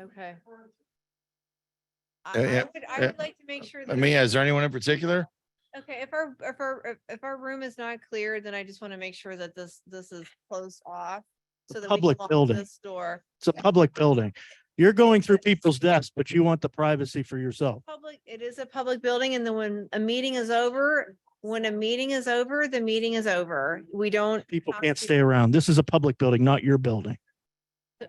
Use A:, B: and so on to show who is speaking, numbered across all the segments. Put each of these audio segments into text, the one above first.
A: Okay.
B: I,
C: Uh,
B: I
C: yeah,
B: would, I
C: uh,
B: would like to make sure.
C: I
B: that
C: mean, yeah, is there anyone in particular?
B: Okay, if our, if our, if- if our room is not clear, then I just want to make sure that this, this is closed off. So that we can
D: public
B: lock
D: building.
B: this door.
D: It's a public building. You're going through people's desks, but you want the privacy for yourself.
B: Public, it is a public building and then when a meeting is over, when a meeting is over, the meeting is over. We don't.
D: People can't stay around. This is a public building, not your building.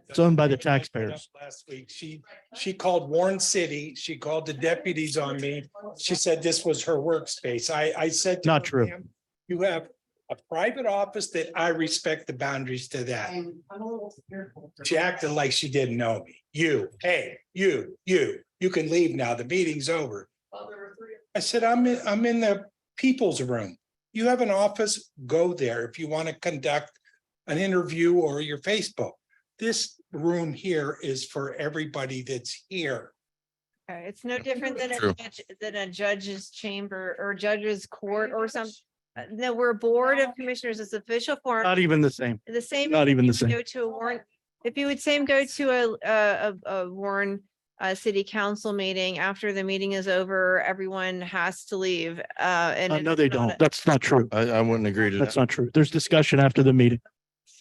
D: It's owned by the taxpayers.
E: Last week, she, she called Warren City, she called the deputies on me. She said this was her workspace. I, I said. to
D: Not
E: her,
D: true.
E: "Ma'am, You have a private office that I respect the boundaries to that. She acted like she didn't know me. You, hey, you, you, you can leave now. The meeting's over. I said, I'm, in- I'm in the people's room. You have an office, go there if you want to conduct an interview or your Facebook. This room here is for everybody that's here.
B: Okay, It's no different than a
C: True.
B: judge, than a judge's chamber or judge's court or some, uh, no, we're a board of commissioners. It's official form.
D: Not even the same.
B: The same.
D: Not
B: if
D: even
B: you
D: the same.
B: Go to a warrant, if you would same go to a, a, a- a Warren, uh, city council meeting, after the meeting is over, everyone has to leave, uh, and.
D: Uh,
B: it
D: No,
B: is
D: they
B: not
D: don't.
B: a-
D: That's not true.
C: I, I wouldn't agree to
D: That's
C: that.
D: not true. There's discussion after the meeting.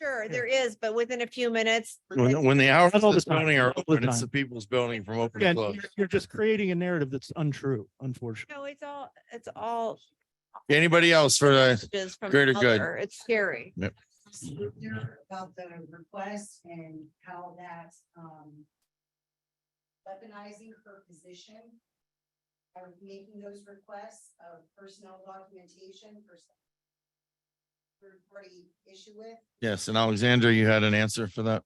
B: Sure, there is, but within a few minutes.
C: When, when the hours
D: Not all
C: of this
D: the time,
C: building are
D: not all the
C: open, it's
D: time.
C: the people's building from open to
D: Again,
C: close.
D: you're- you're just creating a narrative that's untrue, unfortunately.
B: No, it's all, it's all.
C: Anybody else for the,
B: messages from
C: greater good.
B: other. It's scary.
F: About the request and how that's, um. Weaponizing her position. Or making those requests of personnel documentation for. some Third party issue with.
C: yes, and Alexandra, you had an answer for that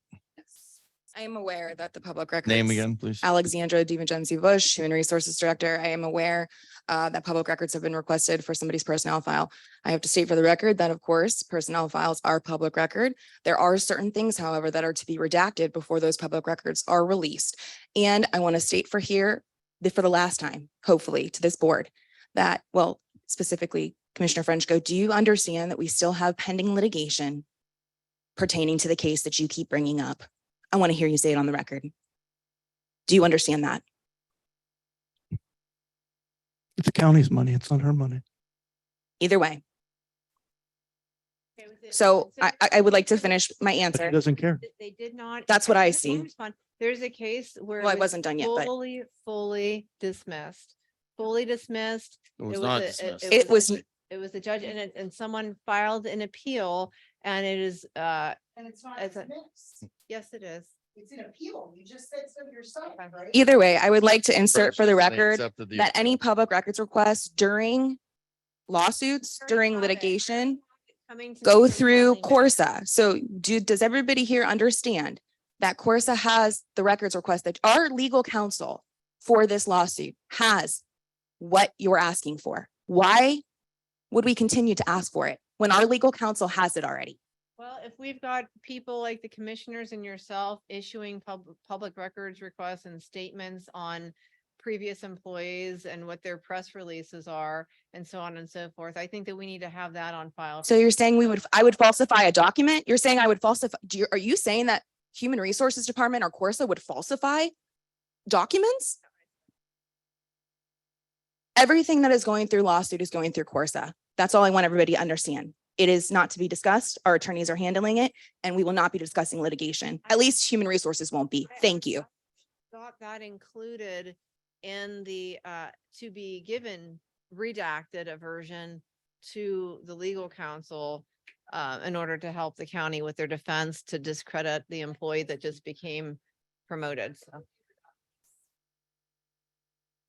G: I am aware that the public records.
C: name again, please?
G: Alexandra DiVincenzi Bush, Human Resources Director. I am aware uh, that public records have been requested for somebody's personnel file. I have to state for the record that, of course, personnel files are public record. There are certain things, however, that are to be redacted before those public records are released. And I want to state for here, the- for the last time, hopefully, to this board, that, well, specifically Commissioner Frenchco, do you understand that we still have pending litigation pertaining to the case that you keep bringing up? I want to hear you say it on the record. Do you understand that?
D: It's the county's money. It's not her money.
G: Either way.
B: Okay, with it-
G: So I, I- I would like to
B: consider-
G: finish my
D: But she
G: answer.
D: doesn't care.
B: that They did not.
G: That's what I
B: did not
G: see.
B: respond. There's a case where. it
G: Well, I
B: was
G: wasn't done yet, but
B: Fully, fully dismissed, fully dismissed.
C: It was
B: was
C: not
B: a- it-
C: dismissed.
B: it
G: it
B: was
G: was,
B: It was a judge and, it- and someone filed an appeal and it is, uh,
F: And it's not
B: As a-
F: dismissed.
B: yes, it is.
F: It's an appeal. You just said so yourself, right?
G: either way, I would like to insert
C: First,
G: for the
C: they
G: record
C: accepted the-
G: that any public records requests during lawsuits,
B: Very
G: during
B: topic.
G: litigation,
B: Coming to
G: go
B: meetings,
G: through
B: nothing.
G: Corsa. So do, does everybody here understand that Corsa has the records request that our legal counsel for this lawsuit has what you're asking for? Why would we continue to ask for it when our legal counsel has it already?
B: Well, if we've got people like the commissioners and yourself issuing pub- public records requests and statements on previous employees and what their press releases are and so on and so forth, I think that we need to have that on file.
G: So you're saying we would, I would falsify a document? You're saying I would falsify, do you, are you saying that Human Resources Department or Corsa would falsify documents? Everything that is going through lawsuit is going through Corsa. That's all I want everybody to understand. It is not to be discussed. Our attorneys are handling it and we will not be discussing litigation. At least Human Resources won't be.
B: I- I
G: Thank you.
B: Thought that included in the, uh, to be given redacted a version to the legal counsel uh, in order to help the county with their defense to discredit the employee that just became promoted, so.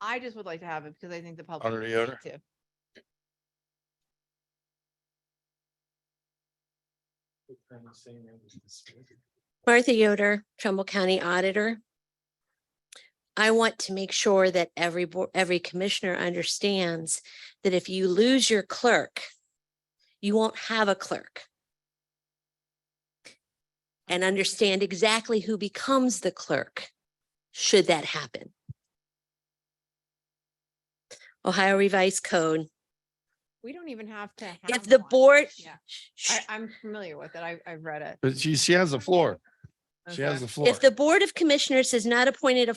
B: I just would like to have it because I think the public.
C: Already
B: needs
C: order?
B: it too.
H: Martha Yoder, Trumbull County Auditor. I want to make sure that every, bo- every commissioner understands that if you lose your clerk, you won't have a clerk. And understand exactly who becomes the clerk, should that happen. Ohio Revised Code.
B: We don't even have to.
H: If
B: have
H: the
B: one.
H: board,
B: Yeah, I, I'm familiar with it. I, I've read it.
C: But she, she has the floor. She has
B: Okay.
C: the floor.
H: If the Board of Commissioners has not appointed a